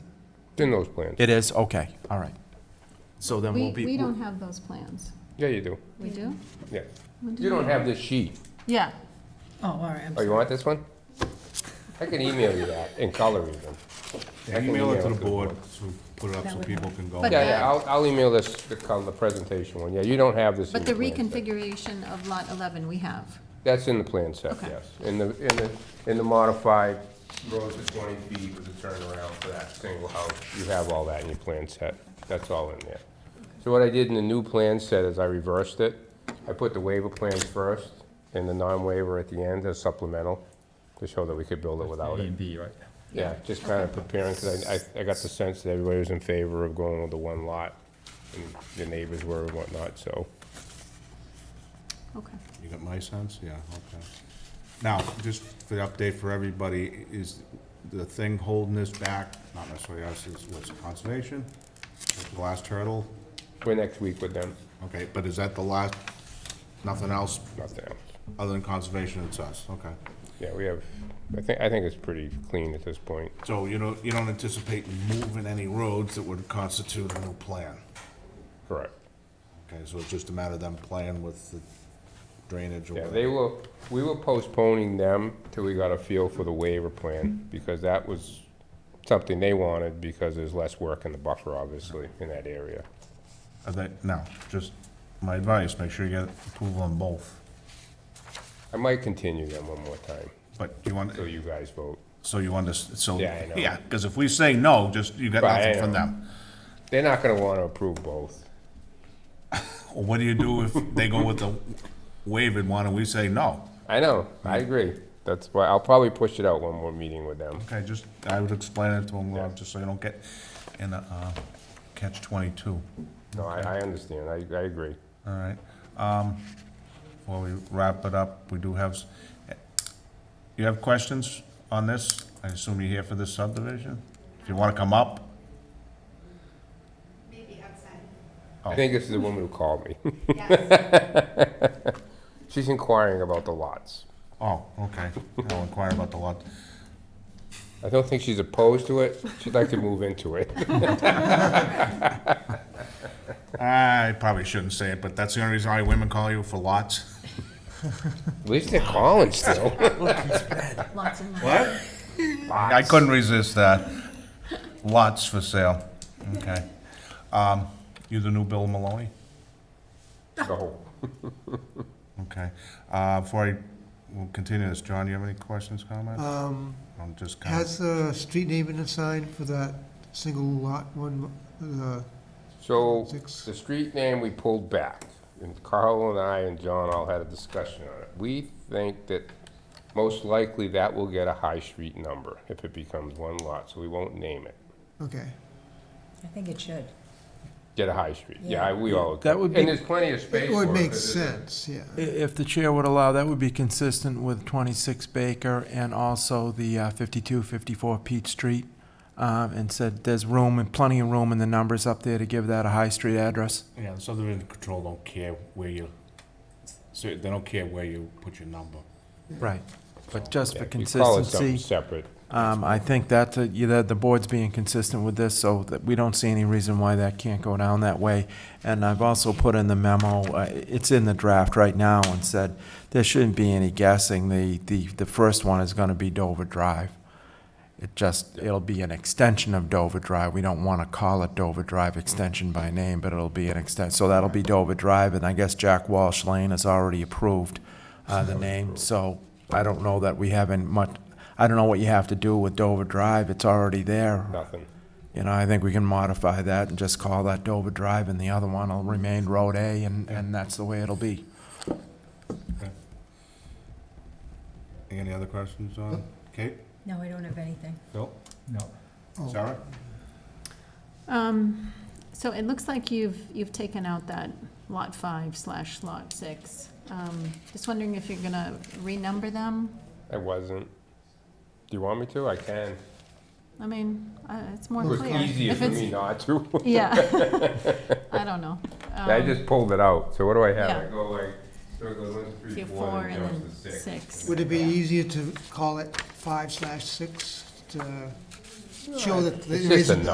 It's in those plans. It is, okay, all right. So then We, we'll be. we don't have those plans. Yeah, you do. We do? Yeah. You don't have this sheet. Yeah. Oh, all right, I'm Oh, you want this one? I can email you that in color even. I can Email it to the board, so put it up so people can go. But Yeah, yeah, I'll, I'll email this, the color, the presentation one. Yeah, you don't have this in But the the plan set. reconfiguration of lot 11, we have. That's in the plan set, Okay. yes. In the, in the, in the modified rows of twenty feet with a turnaround for that single house, you have all that in your plan set. That's all in there. So what I did in the new plan set is I reversed it. I put the waiver plans first and the non-waiver at the end as supplemental to show that we could build it without A it. and B, right? Yeah, just kind of preparing, because I, I- I got the sense that everybody was in favor of going with the one lot, and the neighbors were and whatnot, so. Okay. You got my sense? Yeah, okay. Now, just for the update for everybody, is the thing holding this back, not necessarily us, is what's conservation? The last hurdle? We're next week with them, Okay, but is that the last, nothing else nothing else. other than conservation, it's us, okay. Yeah, we have, I think, I think it's pretty clean at this point. So you don't, you don't anticipate moving any roads that would constitute a new plan? Correct. Okay, so it's just a matter of them playing with the drainage or Yeah, whatever? they were, we were postponing them till we got a feel for the waiver plan, because that was something they wanted, because there's less work in the buffer, obviously, in that area. Are they, no, just my advice, make sure you get approval on both. I might continue them one more time, But you want, till you guys vote. so you want to, so, Yeah, I know. yeah, because if we say no, just, you got Right, I nothing from know. them. They're not gonna wanna approve both. Or what do you do if they go with the waived one and we say no? I know, I agree. That's why, I'll probably push it out one more meeting with them. Okay, just, I would explain it to them, Rob, just so you don't get in a, uh, catch twenty-two. No, I, I understand, I, I agree. All right. Um, While we wrap it up, we do have, s- you have questions on this? I assume you're here for this subdivision? If you want to come up? Maybe outside. I think this is the woman who called me. Yes, She's inquiring about the lots. Oh, okay. I'll inquire about the lot. I don't think she's opposed to it, she'd like to move into it. I probably shouldn't say it, but that's the only reason why women call you for lots. At least they're calling still. Lots and lots. What? I couldn't resist that. Lots for sale. Okay. Um, You the new Bill Maloney? So, Okay. Uh, Before I, we'll continue this, John, you have any questions, comments? Um, I'm just kind of, Has the street name been assigned for that single lot one, the So, Six. the street name we pulled back, and Carl and I and John all had a discussion on it. We think that most likely that will get a high street number if it becomes one lot, so we won't name it. okay. I think it should. Get a high street, yeah, we all. That would And be- there's plenty of space It for it. would make 'cause it's- sense, yeah. I- If the chair would allow, that would be consistent with 26 Baker and also the uh, 52, 54 Peach Street, uh, and said there's room and plenty of room in the numbers up there to give that a high street address. yeah, the subdivision control don't care where you, so they don't care where you put your number. Right. But just Yeah, for if you call it something consistency, Separate. um, I think that, uh, you- that the board's being consistent with this, so that we don't see any reason why that can't go down that way. And I've also put in the memo, uh, it's in the draft right now, and said, there shouldn't be any guessing. The, the, the first one is gonna be Dover Drive. It just, it'll be an extension of Dover Drive. We don't want to call it Dover Drive Extension by name, but it'll be an extent, so that'll be Dover Drive, and I guess Jack Walsh Lane has already approved uh, the name, so I don't know that we haven't much, I don't know what you have to do with Dover Drive, it's already there. Nothing. You know, I think we can modify that and just call that Dover Drive, and the other one will remain Road A, and, and that's the way it'll be. Any other questions on Kate? No, I don't have anything. Bill? No. Sarah? Um, So it looks like you've, you've taken out that lot 5 slash lot 6. Um, Just wondering if you're going to renumber them? I wasn't. Do you want me to? I can. I mean, uh, it's more It was clear. easier If for it's- e- me not to. Yeah. I don't know. I Um, just pulled it out, so what do I have? Yeah. I go like, so it goes one, do three, Um, Four four, and and then then jumps to six. six. Would it be easier to call it five slash six to show that It's there just a isn't